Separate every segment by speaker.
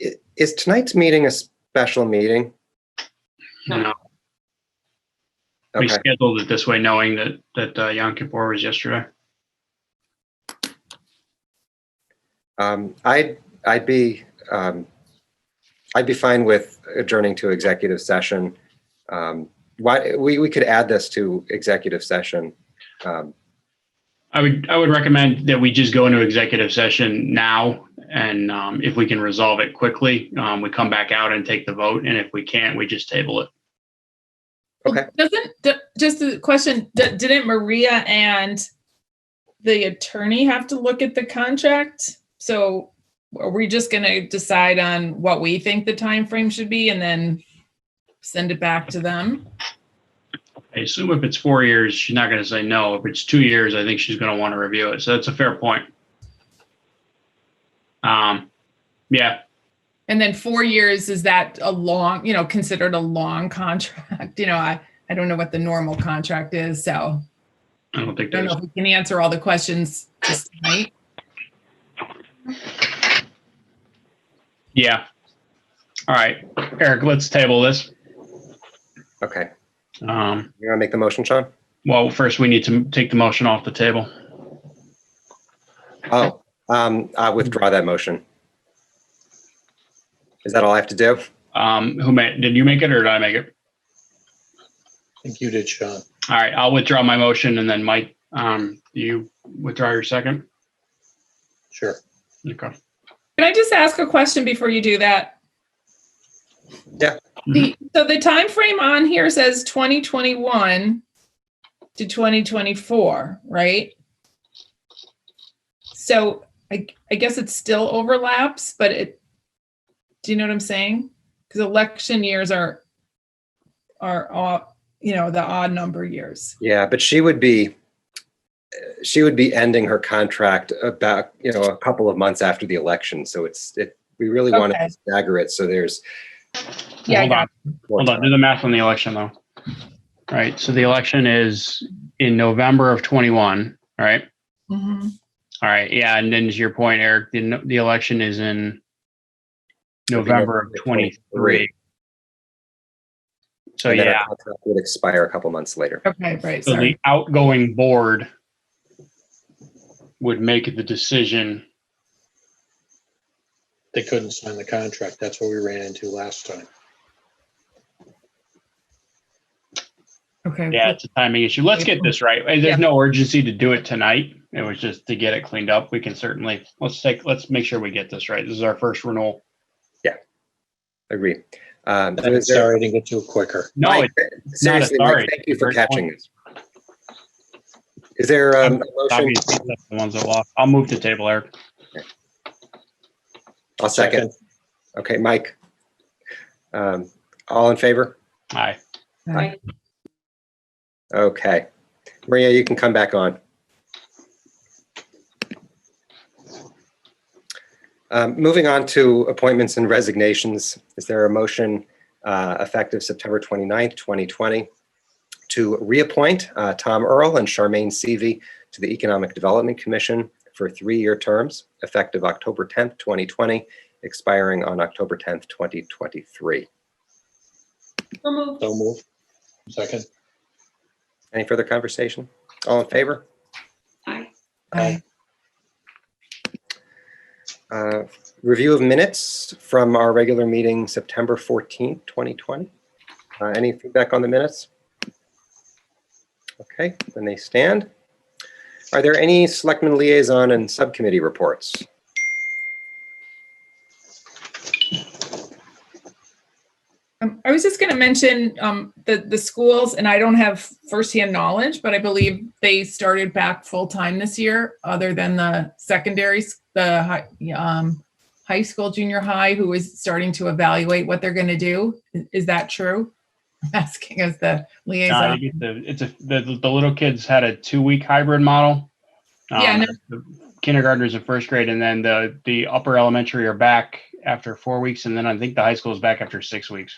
Speaker 1: I- Is tonight's meeting a special meeting?
Speaker 2: No, we
Speaker 1: Mm-hmm. Okay,
Speaker 2: scheduled it this way knowing that, that uh, Yom Kippur was yesterday.
Speaker 1: um, I'd, I'd be, um, I'd be fine with adjourning to executive session. Um, why, we, we could add this to executive session. Um,
Speaker 2: I would, I would recommend that we just go into executive session now. And um, if we can resolve it quickly, um, we come back out and take the vote. And if we can't, we just table it.
Speaker 1: Okay.
Speaker 3: Doesn't, d- just a question, d- didn't Maria and the attorney have to look at the contract? So are we just gonna decide on what we think the time frame should be and then send it back to them?
Speaker 2: I assume if it's four years, she's not going to say no. If it's two years, I think she's going to want to review it. So that's a fair point. Um, yeah,
Speaker 3: And then four years, is that a long, you know, considered a long contract? You know, I, I don't know what the normal contract is, so
Speaker 2: I don't think
Speaker 3: I don't
Speaker 2: there's,
Speaker 3: know if we can answer all the questions just tonight.
Speaker 2: yeah. All right, Eric, let's table this.
Speaker 1: okay,
Speaker 2: Um,
Speaker 1: you want to make the motion, Sean?
Speaker 2: Well, first we need to take the motion off the table.
Speaker 1: Oh, um, I withdraw that motion. Is that all I have to do?
Speaker 2: Um, who made, did you make it or did I make it?
Speaker 4: think you did, Sean.
Speaker 2: All right, I'll withdraw my motion and then Mike, um, you withdraw your second.
Speaker 4: Sure.
Speaker 2: Okay.
Speaker 3: Can I just ask a question before you do that?
Speaker 1: Yeah.
Speaker 3: The, so the time frame on here says 2021 to 2024, right? So I, I guess it still overlaps, but it, do you know what I'm saying? Because election years are, are, all you know, the odd number years.
Speaker 1: Yeah, but she would be, she would be ending her contract about, you know, a couple of months after the election. So it's, it, we really want
Speaker 3: Okay.
Speaker 1: to stagger it. So there's.
Speaker 3: Yeah, I
Speaker 2: Hold
Speaker 3: got
Speaker 2: on,
Speaker 1: more
Speaker 2: hold on, do
Speaker 1: time.
Speaker 2: the math on the election though. All Right, so the election is in November of twenty-one, all right?
Speaker 3: Mhm.
Speaker 2: All right, yeah, and then to your point, Eric, the, the election is in November of twenty-three. So
Speaker 1: And then her
Speaker 2: yeah,
Speaker 1: contract Would expire a couple months later.
Speaker 3: Okay, right,
Speaker 2: So
Speaker 3: sorry.
Speaker 2: the outgoing board would make the decision.
Speaker 4: They couldn't sign the contract. That's what we ran into last time.
Speaker 3: Okay.
Speaker 2: Yeah, it's a timing issue. Let's get this right. Hey, There's no urgency to do it tonight. It was just to get it cleaned up. We can certainly, let's take, let's make sure we get this right. This is our first renewal.
Speaker 1: Agree. Um, so
Speaker 4: I'm
Speaker 1: is there-
Speaker 4: sorry I didn't get to it quicker.
Speaker 2: No,
Speaker 1: Mike,
Speaker 2: it-
Speaker 1: Seriously,
Speaker 2: sorry.
Speaker 1: Mike, thank you for
Speaker 2: Great point.
Speaker 1: catching this. Is there um, a motion?
Speaker 2: obviously that's the ones that lost. I'll move to table, Eric.
Speaker 1: I'll second. Okay, Mike. Um, all in favor?
Speaker 2: Aye.
Speaker 3: All right.
Speaker 1: Okay. Maria, you can come back on. Um, Moving on to appointments and resignations, is there a motion uh, effective September 29th, 2020, to reappoint uh, Tom Earl and Charmaine Seavey to the Economic Development Commission for three-year terms effective October 10th, 2020, expiring on October 10th, 2023?
Speaker 4: Don't move. Second.
Speaker 1: Any further conversation? All in favor?
Speaker 3: Aye.
Speaker 1: Uh, Review of minutes from our regular meeting, September 14th, 2020. Uh, Any feedback on the minutes? Okay, then they stand. Are there any selectmen liaison and subcommittee reports?
Speaker 3: Um, I was just going to mention um, the the schools, and I don't have firsthand knowledge, but I believe they started back full time this year, other than the secondary, s- the high, um, high school, junior high, who is starting to evaluate what they're going to do. I- Is that true? I'm asking as the
Speaker 2: Uh,
Speaker 3: liaison.
Speaker 2: you get the- It's a, the, the little kids had a two-week hybrid model. Um,
Speaker 3: Yeah, no.
Speaker 2: the Kindergartners and first grade, and then the, the upper elementary are back after four weeks, and then I think the high school is back after six weeks.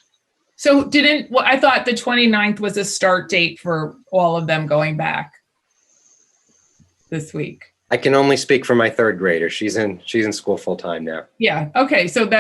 Speaker 3: So didn't well, I thought the 29th was a start date for all of them going back this week.
Speaker 1: I can only speak for my third grader. She's in, she's in school full-time now.
Speaker 3: Yeah. Okay. So that